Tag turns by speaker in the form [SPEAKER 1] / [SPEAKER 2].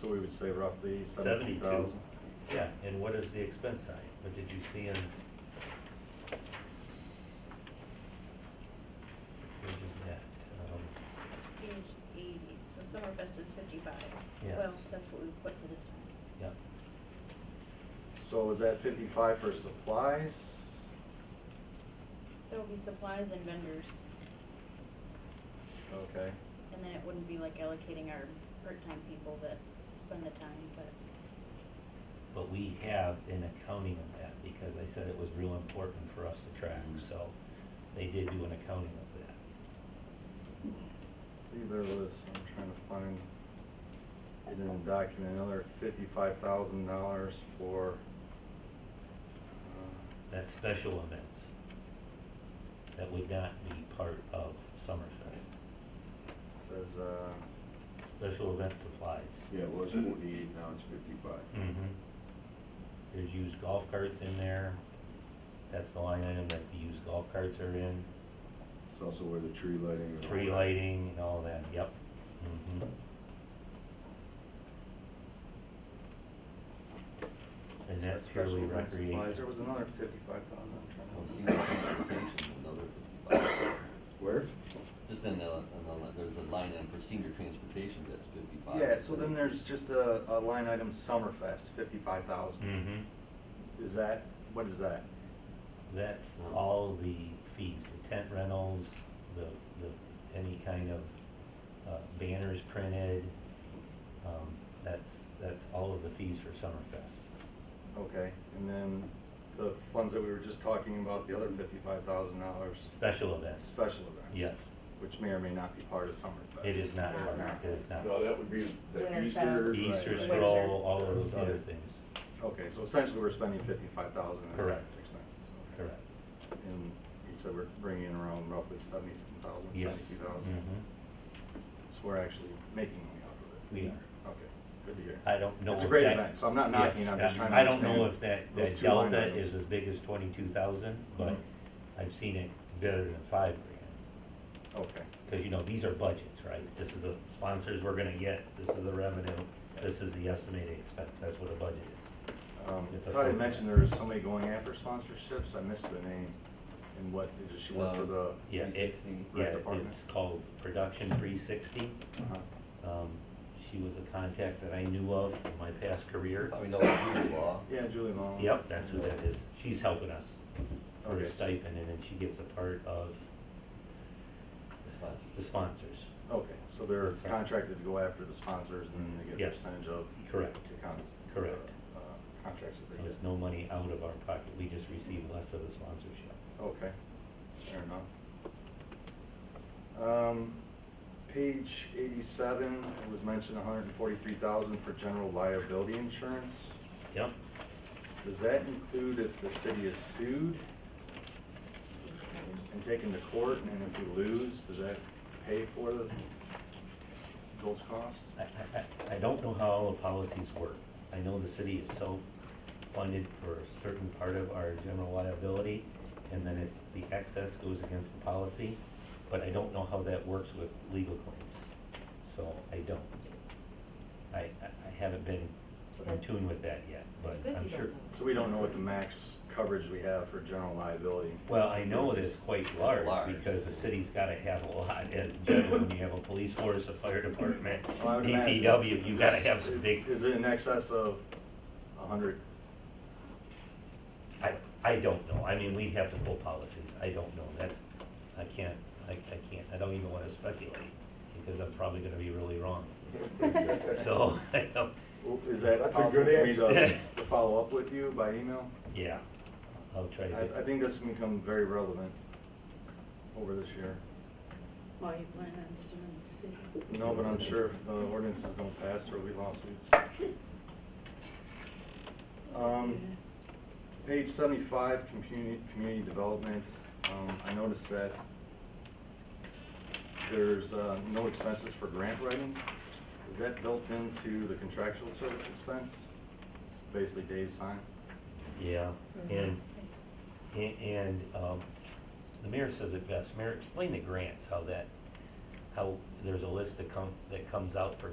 [SPEAKER 1] so we would say roughly seventeen
[SPEAKER 2] 72.
[SPEAKER 1] thousand.
[SPEAKER 2] Yeah, and what is the expense side? What did you see in? What is that? Um,
[SPEAKER 3] Page eighty, so Summerfest is fifty-five.
[SPEAKER 2] Yeah.
[SPEAKER 3] Well, that's what we put for this time.
[SPEAKER 2] Yeah,
[SPEAKER 1] So is that fifty-five for supplies?
[SPEAKER 3] There will be supplies and vendors,
[SPEAKER 1] Okay,
[SPEAKER 3] and then it wouldn't be like allocating our part-time people that spend the time, but
[SPEAKER 2] but we have an accounting of that, because I said it was real important for us to track, so they did do an accounting of that.
[SPEAKER 1] I believe there was, I'm trying to find it in the document, another fifty-five thousand dollars for, uh,
[SPEAKER 2] That's special events. That would not be part of Summerfest.
[SPEAKER 1] says, uh,
[SPEAKER 2] Special event supplies.
[SPEAKER 4] Yeah, it was forty-eight, now it's fifty-five.
[SPEAKER 2] Mm-hmm. There's used golf carts in there. That's the line item that the used golf carts are in.
[SPEAKER 4] It's also where the tree lighting and all that.
[SPEAKER 2] Tree lighting and all that, yep. Mm-hmm. And that's purely
[SPEAKER 1] special event supplies.
[SPEAKER 2] recreation.
[SPEAKER 1] There was another fifty-five thousand,
[SPEAKER 5] Well,
[SPEAKER 1] I'm
[SPEAKER 5] see,
[SPEAKER 1] trying to.
[SPEAKER 5] that's transportation, another,
[SPEAKER 4] Where?
[SPEAKER 5] just in the, in the- there's a line in for senior transportation, that's fifty-five.
[SPEAKER 1] Yeah, so then there's just a, a line item, Summerfest, fifty-five thousand.
[SPEAKER 2] Mm-hmm.
[SPEAKER 1] Is that, what is that?
[SPEAKER 2] That's all the fees, the tent rentals, the, the, any kind of uh, banners printed. Um, That's, that's all of the fees for Summerfest.
[SPEAKER 1] Okay, and then the funds that we were just talking about, the other fifty-five thousand dollars,
[SPEAKER 2] Special events.
[SPEAKER 1] special events.
[SPEAKER 2] Yes,
[SPEAKER 1] Which may or may not be part of Summerfest.
[SPEAKER 2] it is not,
[SPEAKER 3] Not.
[SPEAKER 2] part- it is not.
[SPEAKER 4] No, that would be
[SPEAKER 3] Winter
[SPEAKER 4] the
[SPEAKER 3] Fest.
[SPEAKER 4] Easter.
[SPEAKER 2] Easter
[SPEAKER 1] Right.
[SPEAKER 2] scroll, all of those other
[SPEAKER 1] Yeah.
[SPEAKER 2] things,
[SPEAKER 1] Okay, so essentially we're spending fifty-five thousand in
[SPEAKER 2] Correct.
[SPEAKER 1] expenses. okay.
[SPEAKER 2] correct.
[SPEAKER 1] And you said we're bringing in around roughly seventy-seven thousand,
[SPEAKER 2] Yes.
[SPEAKER 1] seventy-two thousand.
[SPEAKER 2] Mhm.
[SPEAKER 1] So we're actually making money off of it.
[SPEAKER 2] We are.
[SPEAKER 1] Okay, good to hear.
[SPEAKER 2] I don't know.
[SPEAKER 1] It's a
[SPEAKER 2] if
[SPEAKER 1] great
[SPEAKER 2] that-
[SPEAKER 1] event, so I'm not knocking it,
[SPEAKER 2] Yes,
[SPEAKER 1] I'm just
[SPEAKER 2] I-
[SPEAKER 1] trying to
[SPEAKER 2] I don't know
[SPEAKER 1] understand
[SPEAKER 2] if that,
[SPEAKER 1] those
[SPEAKER 2] that
[SPEAKER 1] two line
[SPEAKER 2] delta
[SPEAKER 1] items.
[SPEAKER 2] is as big as twenty-two thousand, but
[SPEAKER 1] Mhm.
[SPEAKER 2] I've seen it better than five grand.
[SPEAKER 1] Okay,
[SPEAKER 2] Because, you know, these are budgets, right? This is the sponsors we're gonna get, this is the revenue, this is the estimated expense, that's what a budget is.
[SPEAKER 1] um,
[SPEAKER 2] It's a
[SPEAKER 1] thought I
[SPEAKER 2] forecast.
[SPEAKER 1] mentioned there was somebody going after sponsorships, I missed the name. And what, did she work for
[SPEAKER 5] Um,
[SPEAKER 1] the?
[SPEAKER 2] Uh, Yeah, it,
[SPEAKER 5] 360.
[SPEAKER 2] yeah,
[SPEAKER 1] Department.
[SPEAKER 2] it's called Production three sixty.
[SPEAKER 1] Uh-huh.
[SPEAKER 2] Um, she was a contact that I knew of in my past career.
[SPEAKER 5] Probably know the Judy
[SPEAKER 1] Oh,
[SPEAKER 5] law.
[SPEAKER 1] Yeah, Julie Mullen.
[SPEAKER 2] Yep, that's who that is. She's helping us for
[SPEAKER 1] Okay.
[SPEAKER 2] a stipend, and then she gets a part of the sponsors.
[SPEAKER 1] Okay, so they're
[SPEAKER 2] That's right.
[SPEAKER 1] contracted to go after the sponsors and then they get a
[SPEAKER 2] Yes.
[SPEAKER 1] percentage of.
[SPEAKER 2] Correct.
[SPEAKER 1] the con-
[SPEAKER 2] Correct.
[SPEAKER 1] uh, Contracts that
[SPEAKER 2] So
[SPEAKER 1] they get.
[SPEAKER 2] it's no money out of our pocket, we just receive less of the sponsorship.
[SPEAKER 1] Okay, fair enough. Um, page eighty-seven, it was mentioned hundred and forty-three thousand for general liability insurance.
[SPEAKER 2] Yep,
[SPEAKER 1] Does that include if the city is sued and taken to court and if we lose, does that pay for the, those costs?
[SPEAKER 2] I, I- I, I don't know how all the policies work. I know the city is self-funded for a certain part of our general liability, and then it's, the excess goes against the policy, but I don't know how that works with legal claims, so I don't. I, I I haven't been in tune with that yet, but
[SPEAKER 6] It's good
[SPEAKER 2] I'm
[SPEAKER 6] you don't
[SPEAKER 2] sure.
[SPEAKER 6] know.
[SPEAKER 1] So we don't know what the max coverage we have for general liability.
[SPEAKER 2] Well, I know it is quite large,
[SPEAKER 5] large.
[SPEAKER 2] because the city's gotta have a lot, as general, when you have a police force, a fire department,
[SPEAKER 1] Well, Oh, I would imagine-
[SPEAKER 2] DPW, you gotta have some big
[SPEAKER 1] Is it in excess of a hundred?
[SPEAKER 2] I, I don't know, I mean, we'd have to pull policies, I don't know, that's, I can't, I, I can't, I don't even wanna speculate, because I'm probably gonna be really wrong, so, I don't,
[SPEAKER 1] Is that
[SPEAKER 4] That's a
[SPEAKER 1] possible for
[SPEAKER 4] good
[SPEAKER 1] me to,
[SPEAKER 2] answer.
[SPEAKER 1] to follow up with you by email?
[SPEAKER 2] yeah, I'll try to.
[SPEAKER 1] I, I think this can become very relevant over this year.
[SPEAKER 7] Why you plan on suing the city?
[SPEAKER 1] No, but I'm sure if the ordinances don't pass, there'll be lawsuits. Um, page seventy-five, community, community development, um, I noticed that there's, uh, no expenses for grant writing. Is that built into the contractual service expense? It's Basically Dave's time?
[SPEAKER 2] Yeah, and, and, and, um, the mayor says it best, Mayor, explain the grants, how that, how there's a list that come, that comes out for